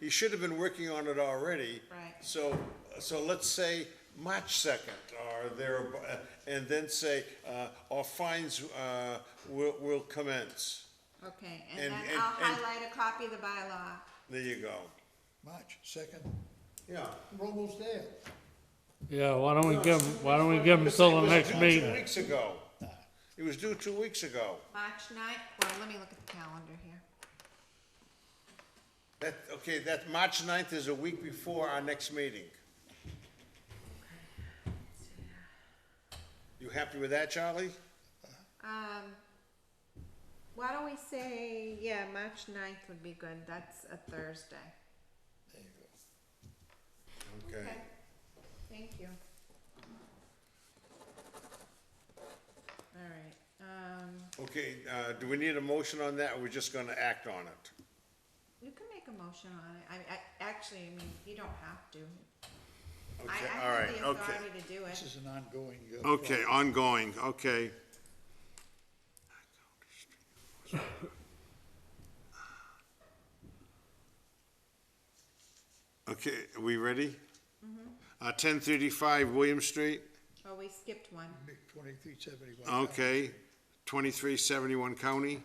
He should have been working on it already. Right. So, so let's say March second or there, uh, and then say, uh, or fines, uh, will, will commence. Okay, And- and then and- I'll and- highlight a copy of the bylaw. There you go. March second, Yeah. we're almost there. Yeah, why don't we give, 'em- why don't we give them till the next Two meeting? weeks ago. It was due two weeks ago. March ninth, well, let me look at the calendar here. That, okay, that, March 9th is a week before our next meeting. You happy with that, Charlie? Um, why don't we say, yeah, March ninth would be good, that's a Thursday. There you Okay. Thank you. Alright, um, Okay, uh, do we need a motion on that, or we're just gonna act on it? you can make a motion on it, I, I, actually, I mean, you don't have to. I, Okay, I all have right, the okay. authority to do This it. is an ongoing. uh, Okay, ongoing, okay. Okay, are we ready? Uh, ten thirty-five William Street, Oh, we skipped one, Big Twenty-three seventy-one. okay, twenty-three seventy-one County,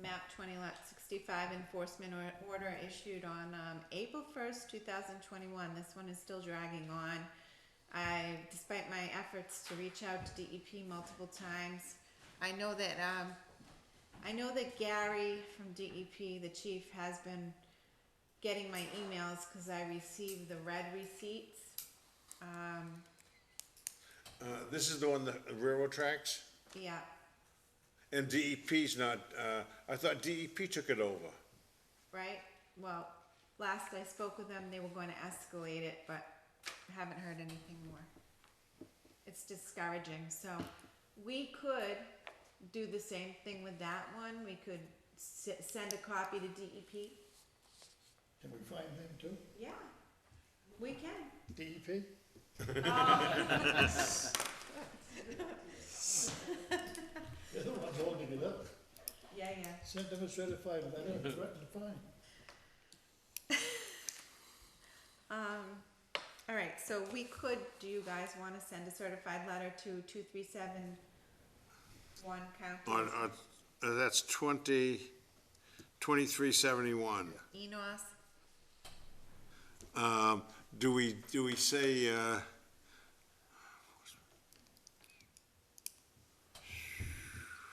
map twenty lot sixty-five enforcement or- order issued on, um, April first, two thousand twenty-one, this one is still dragging on. I, despite my efforts to reach out to DEP multiple times, I know that, um, I know that Gary from DEP, the chief, has been getting my emails, cause I receive the red receipts. Um, uh, this is the one, the railroad tracks, yeah, and DEP's not, uh, I thought DEP took it over. right? Well, last I spoke with them, they were going to escalate it, but haven't heard anything more. It's discouraging, so we could do the same thing with that one, we could s- send a copy to DEP. Can we find them too? E Yeah, we can. DEP? They're the ones holding it up. Yeah, yeah. Send them a certified letter and threaten to fine. Um, all right, so we could, do you guys wanna send a certified letter to two three seven one On, county, on, uh, that's twenty, twenty-three seventy-one. Enos? Um, do we, do we say, uh,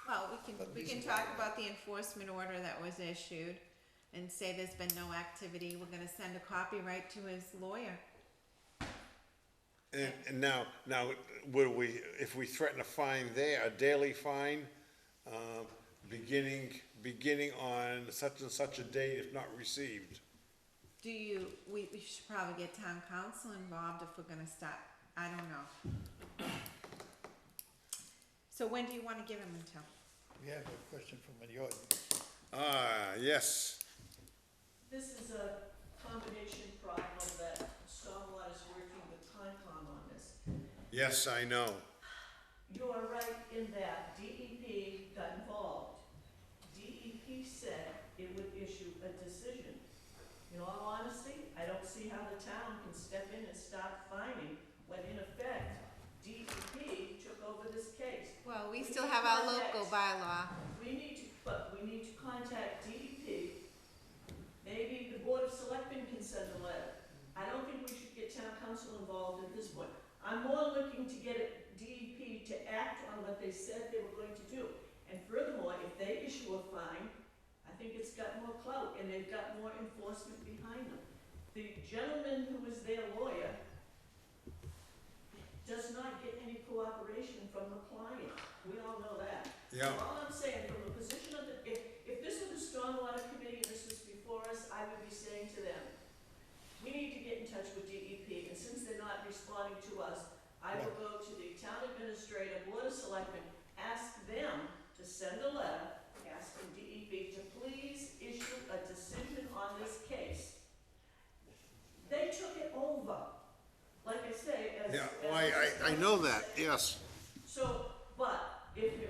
Well, we can, we can talk about the enforcement order that was issued and say there's been no activity, we're gonna send a copy right to his lawyer. and, and now, now, would we, if we threaten a fine there, a daily fine, um, beginning, beginning on such and such a date if not received? Do you, we, we should probably get town council involved if we're gonna stop, I don't know. So when do you wanna give him until? We have a question from the audience. Ah, yes, This is a combination problem that Stormwater is working with Concom on this. yes, I know. You are right in that DEP got involved. DEP said it would issue a decision. In all honesty, I don't see how the town can step in and start fining when in effect DEP took over this case. Well, we We still can have our contact- local bylaw. We need to, but we need to contact DEP. Maybe the Board of Selectmen can send a letter. I don't think we should get town council involved at this point. I'm more looking to get DEP to act on what they said they were going to do. And furthermore, if they issue a fine, I think it's got more clout and they've got more enforcement behind them. The gentleman who was their lawyer does not get any cooperation from the client. We all know that. Yeah. All I'm saying, from the position of the, if, if this was the stormwater committee and this was before us, I would be saying to them, we need to get in touch with DEP, and since they're not responding to us, I will go to the town administrator, board of selectmen, ask them to send a letter asking DEP to please issue a decision on this case. They took it over, like I say, as. Yeah, as oh, I, I, I know that, yes. so, but if